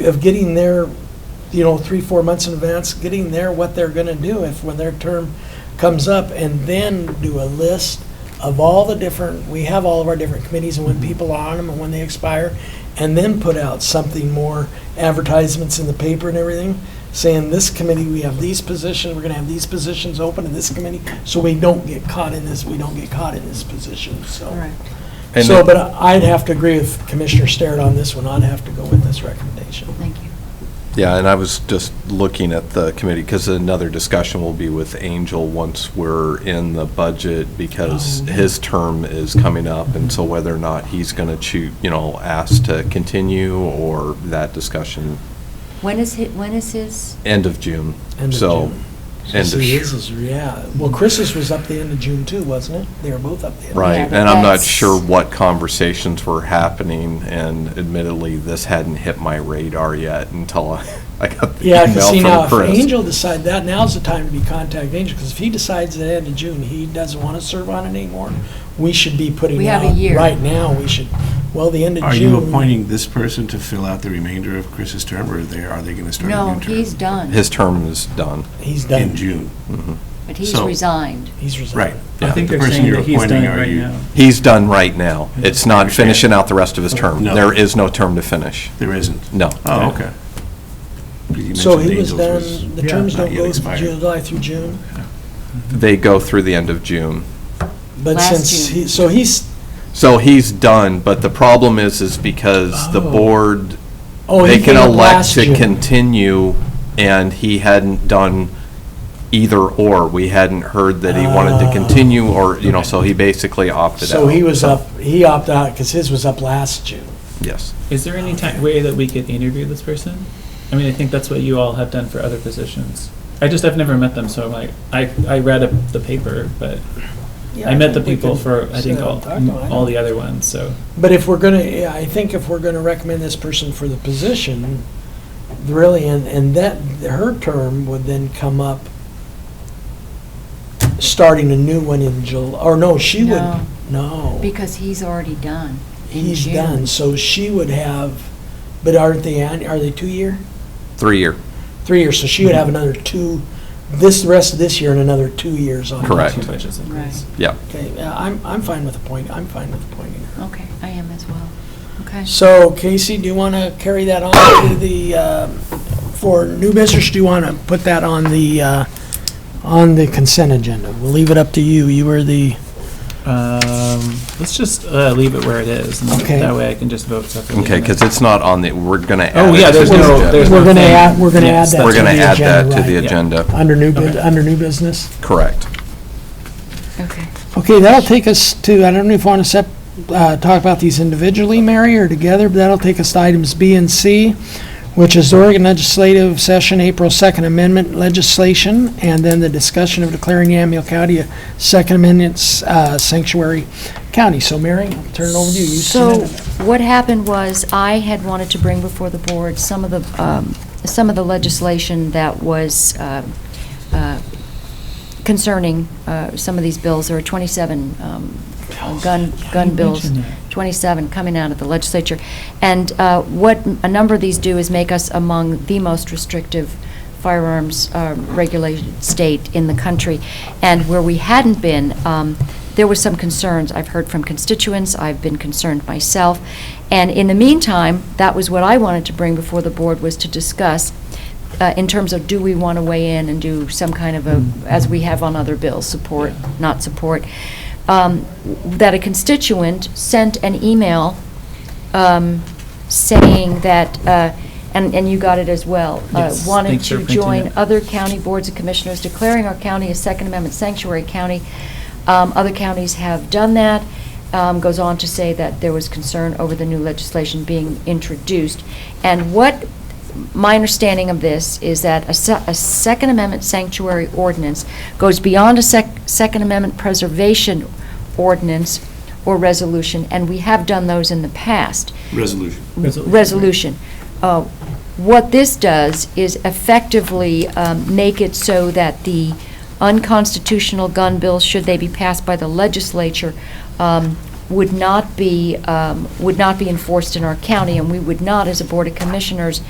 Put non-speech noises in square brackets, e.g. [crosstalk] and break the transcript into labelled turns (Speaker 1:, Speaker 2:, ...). Speaker 1: of getting their, you know, three, four months in advance, getting their, what they're gonna do if, when their term comes up, and then do a list of all the different, we have all of our different committees and when people are on them and when they expire, and then put out something more, advertisements in the paper and everything, saying this committee, we have these positions, we're gonna have these positions open in this committee, so we don't get caught in this, we don't get caught in this position, so.
Speaker 2: And
Speaker 1: So,
Speaker 2: it-
Speaker 1: but I'd have to agree with Commissioner Starrett on this one, I'd have to go with this recommendation.
Speaker 3: Thank you.
Speaker 2: Yeah, and I was just looking at the committee, because another discussion will be with Angel once we're in the budget, because
Speaker 1: Oh.
Speaker 2: his term is coming up, and so whether or not he's going to choose, you know, ask to continue, or that discussion,
Speaker 3: When is his, when is his,
Speaker 2: end of June.
Speaker 1: End of
Speaker 2: So,
Speaker 1: June.
Speaker 2: end of
Speaker 1: This is- Yeah, well, Chris's was up the end of June too, wasn't it? They were both up the end.
Speaker 2: Right,
Speaker 3: Yeah, but
Speaker 2: and I'm not
Speaker 3: that's-
Speaker 2: sure what conversations were happening, and admittedly, this hadn't hit my radar yet until I [laughs] I got the
Speaker 1: Yeah,
Speaker 2: email
Speaker 1: 'cause see now,
Speaker 2: from
Speaker 1: if
Speaker 2: Chris.
Speaker 1: Angel decide that, now's the time to be contacting Angel, because if he decides at the end of June, he doesn't want to serve on it anymore, we should be putting out.
Speaker 3: We have a year.
Speaker 1: Right now, we should, well, the end of
Speaker 4: Are
Speaker 1: June.
Speaker 4: you appointing this person to fill out the remainder of Chris's term, or they, are they going to start a
Speaker 3: no,
Speaker 4: new term?
Speaker 3: he's done,
Speaker 2: His term is done.
Speaker 1: He's
Speaker 4: In
Speaker 1: done,
Speaker 4: June,
Speaker 3: but he's
Speaker 4: so-
Speaker 3: resigned.
Speaker 1: he's
Speaker 4: right.
Speaker 1: resigned.
Speaker 5: I
Speaker 2: Yeah,
Speaker 5: think
Speaker 4: the
Speaker 5: they're
Speaker 4: person
Speaker 5: saying
Speaker 4: you're
Speaker 5: that he's
Speaker 4: appointing,
Speaker 5: done
Speaker 4: are
Speaker 5: right
Speaker 4: you-
Speaker 5: now.
Speaker 2: He's done right now. It's not
Speaker 4: Understand.
Speaker 2: finishing out the rest of his term.
Speaker 4: No.
Speaker 2: There is no term to finish.
Speaker 4: There isn't?
Speaker 2: No.
Speaker 4: Oh, okay. 'Cause you
Speaker 1: So
Speaker 4: mentioned
Speaker 1: he was
Speaker 4: Angels was
Speaker 1: done, the
Speaker 5: yeah,
Speaker 1: terms
Speaker 4: not
Speaker 1: don't
Speaker 4: yet
Speaker 1: go from
Speaker 4: expired.
Speaker 1: July through June,
Speaker 2: They go through the end of June.
Speaker 1: but
Speaker 3: Last
Speaker 1: since,
Speaker 3: June.
Speaker 1: he- so he's,
Speaker 2: So he's done, but the problem is, is because the
Speaker 1: Oh.
Speaker 2: board,
Speaker 1: oh,
Speaker 2: they
Speaker 1: he
Speaker 2: can
Speaker 1: came up last
Speaker 2: elect
Speaker 1: June.
Speaker 2: to continue, and he hadn't done either or. We hadn't heard that he wanted to
Speaker 1: Ah.
Speaker 2: continue, or, you know, so he basically opted out.
Speaker 1: So he was up, he opted out, because his was up last June.
Speaker 2: Yes.
Speaker 5: Is there any ti- way that we could interview this person? I mean, I think that's what you all have done for other positions. I just, I've never met them, so I'm like, I, I read a- the paper, but I met the people for, I think, all, all the other ones, so.
Speaker 1: But if we're gonna, yeah, I think if we're gonna recommend this person for the position, really, and, and that, her term would then come up, starting a new one in July, or no, she would,
Speaker 3: No.
Speaker 1: no.
Speaker 3: Because he's already done in
Speaker 1: He's
Speaker 3: June.
Speaker 1: done, so she would have, but aren't they, an- are they two-year?
Speaker 2: Three-year,
Speaker 1: Three years, so she would have another two, this, the rest of this year and another two years on.
Speaker 2: Correct.
Speaker 5: Two budgets in place.
Speaker 2: yeah.
Speaker 1: Okay, yeah, I'm, I'm fine with appointing, I'm fine with appointing her.
Speaker 3: Okay, I am as well. Okay.
Speaker 1: So Casey, do you want to carry that on to the, um, for new business, do you want to put that on the, uh, on the consent agenda? We'll leave it up to you. You were the,
Speaker 5: Um, let's just, uh, leave it where it is, and
Speaker 1: Okay.
Speaker 5: that way I can just vote separately.
Speaker 2: Okay, because it's not on the, we're going to add.
Speaker 5: Oh,
Speaker 2: it
Speaker 5: yeah,
Speaker 2: to
Speaker 5: there's
Speaker 2: the
Speaker 5: no,
Speaker 2: agenda.
Speaker 5: there's no
Speaker 1: We're gonna
Speaker 5: thing.
Speaker 1: add- we're gonna
Speaker 5: Yes,
Speaker 1: add that
Speaker 5: that's
Speaker 2: We're going to
Speaker 1: the
Speaker 2: add that
Speaker 1: agenda,
Speaker 2: to the
Speaker 1: right.
Speaker 2: agenda.
Speaker 1: under new, bus-
Speaker 5: Okay.
Speaker 1: under new business?
Speaker 2: Correct.
Speaker 3: Okay.
Speaker 1: Okay, that'll take us to, I don't know if you want to sep, uh, talk about these individually, Mary, or together, but that'll take us to items B and C, which is Oregon Legislative Session, April 2nd Amendment legislation, and then the discussion of declaring Yamhill County a Second Amendment uh, sanctuary county. So Mary, I'll turn it over to you. You
Speaker 3: So
Speaker 1: submitted it.
Speaker 3: what happened was, I had wanted to bring before the board some of the, um, some of the legislation that was uh, uh, concerning uh, some of these bills. There were 27 um, gun, gun
Speaker 5: you
Speaker 3: bills,
Speaker 5: mentioned
Speaker 3: 27 coming out of the legislature. And uh, what a number of these do is make us among the most restrictive firearms uh, regulated state in the country. And where we hadn't been, um, there were some concerns. I've heard from constituents, I've been concerned myself. And in the meantime, that was what I wanted to bring before the board, was to discuss uh, in terms of do we want to weigh in and do some kind of a, as we have on other bills, support, not support, um, that a constituent sent an email um, saying that, uh, and, and you got it as well, uh,
Speaker 5: Yes,
Speaker 3: wanted
Speaker 5: thanks for
Speaker 3: to
Speaker 5: printing
Speaker 3: join
Speaker 5: it.
Speaker 3: other county boards of commissioners declaring our county a Second Amendment sanctuary county. Um, Other counties have done that. Um, Goes on to say that there was concern over the new legislation being introduced. And what my understanding of this is that a, se- a Second Amendment sanctuary ordinance goes beyond a sec- Second Amendment preservation ordinance or resolution, and we have done those in the past
Speaker 4: Resolution.
Speaker 3: resolution. Uh, What this does is effectively um, make it so that the unconstitutional gun bills, should they be passed by the legislature, um, would not be, um, would not be enforced in our county, and we would not, as a Board of Commissioners,